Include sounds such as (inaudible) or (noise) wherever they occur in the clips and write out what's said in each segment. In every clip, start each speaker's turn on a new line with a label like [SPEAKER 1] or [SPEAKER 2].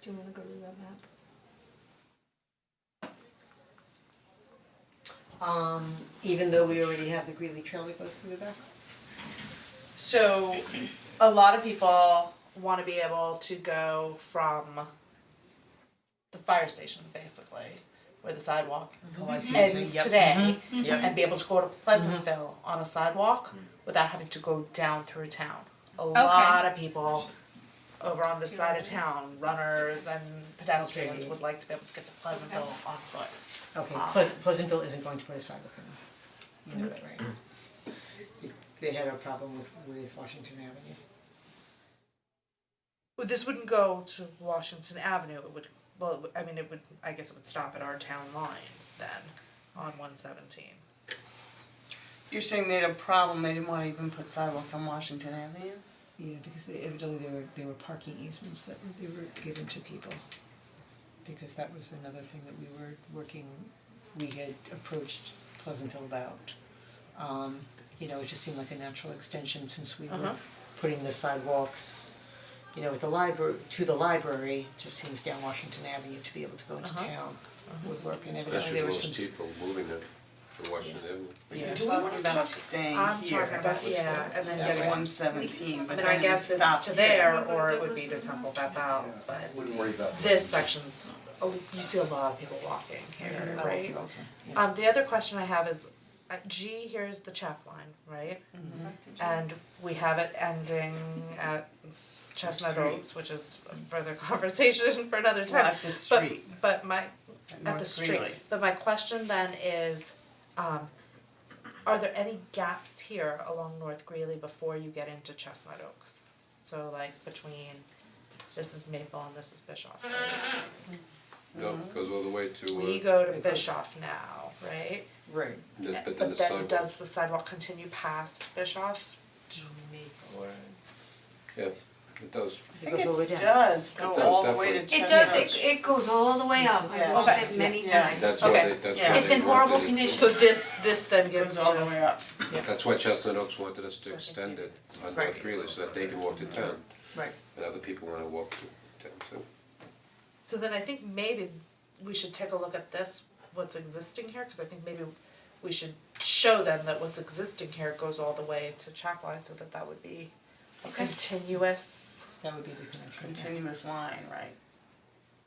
[SPEAKER 1] Do you wanna go to that map?
[SPEAKER 2] Um, even though we already have the Greeley Trail that goes through there?
[SPEAKER 3] So, a lot of people want to be able to go from the fire station, basically, where the sidewalk
[SPEAKER 4] Oh,
[SPEAKER 5] Mm-hmm.
[SPEAKER 4] I see. what you're saying.
[SPEAKER 3] ends
[SPEAKER 4] Yep.
[SPEAKER 3] today,
[SPEAKER 4] Yep.
[SPEAKER 3] and be able to go to Pleasantville on a sidewalk without having to go down through town. A lot of people over on this side of town, runners and pedestrians, would like to be able to get to Pleasantville on foot.
[SPEAKER 2] Okay,
[SPEAKER 1] Ah.
[SPEAKER 2] Pleas- Pleasantville isn't going to put a sidewalk in. You know that, right?
[SPEAKER 1] Mm-hmm.
[SPEAKER 2] They had a problem with with Washington Avenue.
[SPEAKER 3] Well, this wouldn't go to Washington Avenue. It would, well, it would- I mean, it would, I guess it would stop at our town line then on 117.
[SPEAKER 5] You're saying they had a problem, they didn't wanna even put sidewalks on Washington Avenue?
[SPEAKER 2] Yeah, because they evidently there were there were parking easements that were- they were given to people. Because that was another thing that we were working, we had approached Pleasantville about. Um, you know, it just seemed like a natural extension since we were
[SPEAKER 3] Uh-huh.
[SPEAKER 2] putting the sidewalks, you know, at the library, to the library, just seems down Washington Avenue to be able to go into
[SPEAKER 3] Uh-huh.
[SPEAKER 2] town would work and evidently
[SPEAKER 6] Especially
[SPEAKER 2] there was
[SPEAKER 6] those
[SPEAKER 2] some. s-
[SPEAKER 6] people moving it to Washington Avenue.
[SPEAKER 2] Yeah.
[SPEAKER 5] Do we wanna talk? Staying
[SPEAKER 3] I'm
[SPEAKER 5] here.
[SPEAKER 3] talking about, yeah, and then
[SPEAKER 2] Yeah,
[SPEAKER 3] just
[SPEAKER 2] right.
[SPEAKER 5] one
[SPEAKER 3] one.
[SPEAKER 5] seventeen, but
[SPEAKER 3] But I
[SPEAKER 5] then you
[SPEAKER 3] guess it's
[SPEAKER 5] stop
[SPEAKER 3] to
[SPEAKER 5] here.
[SPEAKER 3] there or it would be to Temple Beth out, but
[SPEAKER 7] Wouldn't worry about that.
[SPEAKER 3] this section's, oh, you see a lot of people walking here,
[SPEAKER 2] Yeah.
[SPEAKER 3] right?
[SPEAKER 2] Oh, Yeah.
[SPEAKER 3] Um, the other question I have is, at G here is the chap line, right?
[SPEAKER 5] Mm-hmm.
[SPEAKER 3] And we have it ending at Chestnut
[SPEAKER 5] Street.
[SPEAKER 3] Oaks, which is a further (laughs) conversation for another
[SPEAKER 5] Well,
[SPEAKER 3] time.
[SPEAKER 5] at the street,
[SPEAKER 3] But but my,
[SPEAKER 5] at
[SPEAKER 3] at the
[SPEAKER 5] North
[SPEAKER 3] street,
[SPEAKER 5] Greeley.
[SPEAKER 3] but my question then is, um, are there any gaps here along North Greeley before you get into Chestnut Oaks? So like between, this is Maple and this is Bischoff, right?
[SPEAKER 6] No, it goes all the way
[SPEAKER 3] We
[SPEAKER 6] to, uh,
[SPEAKER 3] go to
[SPEAKER 2] it goes-
[SPEAKER 3] Bischoff now, right?
[SPEAKER 2] Right.
[SPEAKER 6] the- but then the
[SPEAKER 3] But then
[SPEAKER 6] sidewalk.
[SPEAKER 3] does the sidewalk continue past Bischoff?
[SPEAKER 6] Yeah, it does.
[SPEAKER 2] It goes all the way down.
[SPEAKER 5] It does
[SPEAKER 6] It
[SPEAKER 5] go
[SPEAKER 6] does
[SPEAKER 5] all the way to
[SPEAKER 6] definitely.
[SPEAKER 4] It
[SPEAKER 5] Chestnut.
[SPEAKER 4] does, it, it goes all the way up, I've
[SPEAKER 5] Yeah.
[SPEAKER 4] looked at
[SPEAKER 3] Okay.
[SPEAKER 4] it many
[SPEAKER 5] Yeah.
[SPEAKER 4] times.
[SPEAKER 6] That's why
[SPEAKER 3] Okay.
[SPEAKER 6] they, that's
[SPEAKER 5] Yeah.
[SPEAKER 6] why
[SPEAKER 4] It's
[SPEAKER 6] they
[SPEAKER 4] in
[SPEAKER 6] wanted
[SPEAKER 4] horrible
[SPEAKER 6] it.
[SPEAKER 4] condition.
[SPEAKER 3] So this, this then
[SPEAKER 5] It
[SPEAKER 3] gives
[SPEAKER 5] goes all the
[SPEAKER 3] to,
[SPEAKER 5] way up.
[SPEAKER 6] That's why Chestnut Oaks wanted us to
[SPEAKER 3] So I think
[SPEAKER 6] extend
[SPEAKER 3] maybe
[SPEAKER 6] it
[SPEAKER 3] it's-
[SPEAKER 6] on
[SPEAKER 2] Right.
[SPEAKER 6] North Greeley so that they can walk to town
[SPEAKER 2] Right.
[SPEAKER 6] and other people wanna walk to town, so.
[SPEAKER 3] so then I think maybe we should take a look at this, what's existing here, cause I think maybe we should show them that what's existing here goes all the way to Chapline, so that that would be a continuous.
[SPEAKER 2] That would be the connection. yeah.
[SPEAKER 5] Continuous line, right?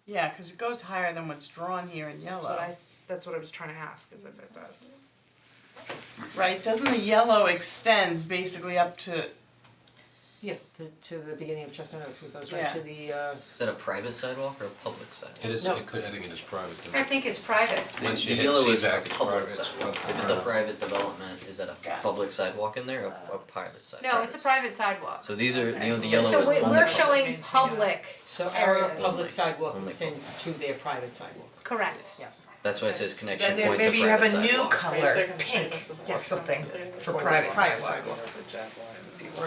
[SPEAKER 5] Yeah, cause it goes higher than what's drawn here in
[SPEAKER 3] That's what
[SPEAKER 5] yellow,
[SPEAKER 3] I, that's what I was trying to ask, is if it does.
[SPEAKER 5] right? Doesn't the yellow extends basically up to,
[SPEAKER 2] Yeah, to to the beginning of Chestnut Oaks, it goes right
[SPEAKER 5] Yeah.
[SPEAKER 2] to the uh
[SPEAKER 8] Is that a private sidewalk or a public sidewalk?
[SPEAKER 6] It is,
[SPEAKER 2] No. it
[SPEAKER 6] could, I think it is private
[SPEAKER 4] I think it's private.
[SPEAKER 6] Once you
[SPEAKER 8] The
[SPEAKER 6] hit
[SPEAKER 8] yellow is
[SPEAKER 6] CZAC,
[SPEAKER 8] a
[SPEAKER 6] it's
[SPEAKER 8] public
[SPEAKER 6] private, Uh-huh. it's
[SPEAKER 8] sidewalk.
[SPEAKER 6] once
[SPEAKER 8] If it's a
[SPEAKER 6] around.
[SPEAKER 8] private development, is that a
[SPEAKER 5] Got it.
[SPEAKER 8] public sidewalk in there or a private sidewalk?
[SPEAKER 4] No, it's a private sidewalk.
[SPEAKER 8] So these are, the only
[SPEAKER 4] So
[SPEAKER 8] yellow is
[SPEAKER 4] so
[SPEAKER 8] only
[SPEAKER 4] we-
[SPEAKER 8] public.
[SPEAKER 4] we're showing public,
[SPEAKER 2] So our
[SPEAKER 4] Areas.
[SPEAKER 2] public sidewalk
[SPEAKER 8] Only
[SPEAKER 2] extends to their private sidewalk,
[SPEAKER 4] correct.
[SPEAKER 2] yes.
[SPEAKER 8] That's why it says connection
[SPEAKER 9] Then there
[SPEAKER 8] point to
[SPEAKER 9] maybe you have
[SPEAKER 8] private
[SPEAKER 9] a new
[SPEAKER 8] sidewalk.
[SPEAKER 9] color, pink or something for private sidewalk.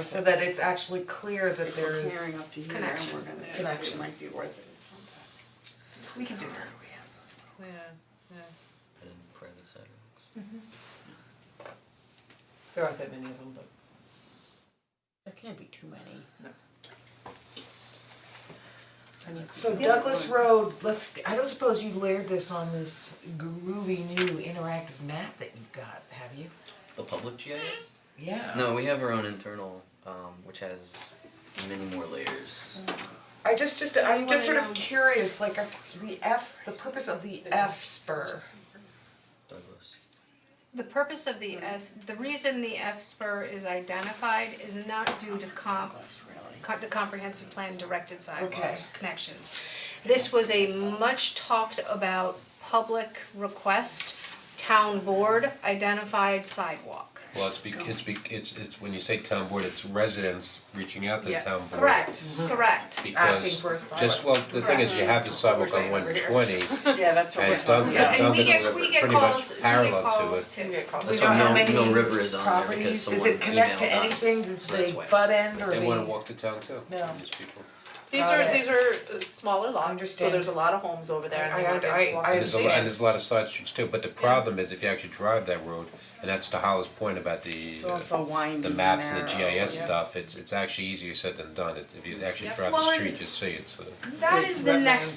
[SPEAKER 9] So that it's actually clear that
[SPEAKER 5] if we're
[SPEAKER 9] there's.
[SPEAKER 5] clearing up to here, and
[SPEAKER 4] connection.
[SPEAKER 5] we're gonna, connection might be worth it.
[SPEAKER 4] We can do that.
[SPEAKER 3] Yeah,
[SPEAKER 8] And private sidewalks.
[SPEAKER 2] There aren't that many of them, but
[SPEAKER 5] There can't be too many.
[SPEAKER 9] So Douglas Road, let's, I don't suppose you layered this on this groovy new interactive map that you've got, have you?
[SPEAKER 8] The public GIS?
[SPEAKER 9] Yeah.
[SPEAKER 8] No, we have our own internal, um, which has many more layers.
[SPEAKER 9] I just, just, I'm just sort of curious, like, uh, the F, the purpose of the F spur.
[SPEAKER 8] Douglas.
[SPEAKER 4] The purpose of the S, the reason the F spur is identified is not due to comp, co- the comprehensive plan directed sidewalks connections. This was a much talked about public request, town board identified sidewalk.
[SPEAKER 6] Well, it's be, it's be, it's, it's, when you say town board, it's residents reaching out to the
[SPEAKER 5] Yes.
[SPEAKER 6] town board.
[SPEAKER 4] Correct, correct.
[SPEAKER 9] Asking for a
[SPEAKER 6] Because, just, well, the thing is, you have the sidewalk on one twenty,
[SPEAKER 5] Yeah, that's what
[SPEAKER 6] and
[SPEAKER 5] we're talking
[SPEAKER 6] Dun-
[SPEAKER 5] about.
[SPEAKER 4] And we
[SPEAKER 6] Dundas is
[SPEAKER 4] get, we get
[SPEAKER 6] pretty
[SPEAKER 4] calls,
[SPEAKER 6] much
[SPEAKER 4] we get
[SPEAKER 6] parallel to
[SPEAKER 4] calls
[SPEAKER 6] it.
[SPEAKER 4] too.
[SPEAKER 8] That's why Mill, Mill River is on there because someone emailed
[SPEAKER 9] Does it
[SPEAKER 8] us.
[SPEAKER 9] connect to anything, does
[SPEAKER 8] So that's
[SPEAKER 9] they
[SPEAKER 8] why it's-
[SPEAKER 9] butt end or
[SPEAKER 6] They wanna
[SPEAKER 9] they-
[SPEAKER 6] walk to town too,
[SPEAKER 9] No.
[SPEAKER 6] these people.
[SPEAKER 3] These
[SPEAKER 9] Got
[SPEAKER 3] are,
[SPEAKER 9] it.
[SPEAKER 3] these are uh, smaller lots, so
[SPEAKER 9] understand.
[SPEAKER 3] there's a lot of homes over there and
[SPEAKER 9] I-
[SPEAKER 3] they
[SPEAKER 9] I-
[SPEAKER 3] want
[SPEAKER 9] I-
[SPEAKER 3] to walk.
[SPEAKER 9] I
[SPEAKER 6] And there's a lot,
[SPEAKER 9] understand.
[SPEAKER 6] and there's a lot of side streets too, but the problem is if you actually drive that road, and that's to Hollis' point about the uh,
[SPEAKER 5] It's also windy
[SPEAKER 6] the maps and the
[SPEAKER 5] narrow,
[SPEAKER 6] GIS
[SPEAKER 5] yeah.
[SPEAKER 6] stuff, it's it's actually easier said than done, It- if you actually
[SPEAKER 3] Yeah.
[SPEAKER 6] drive the
[SPEAKER 4] Well, and-
[SPEAKER 6] street, you see it's uh.
[SPEAKER 4] That is the
[SPEAKER 9] Wetlands.
[SPEAKER 4] next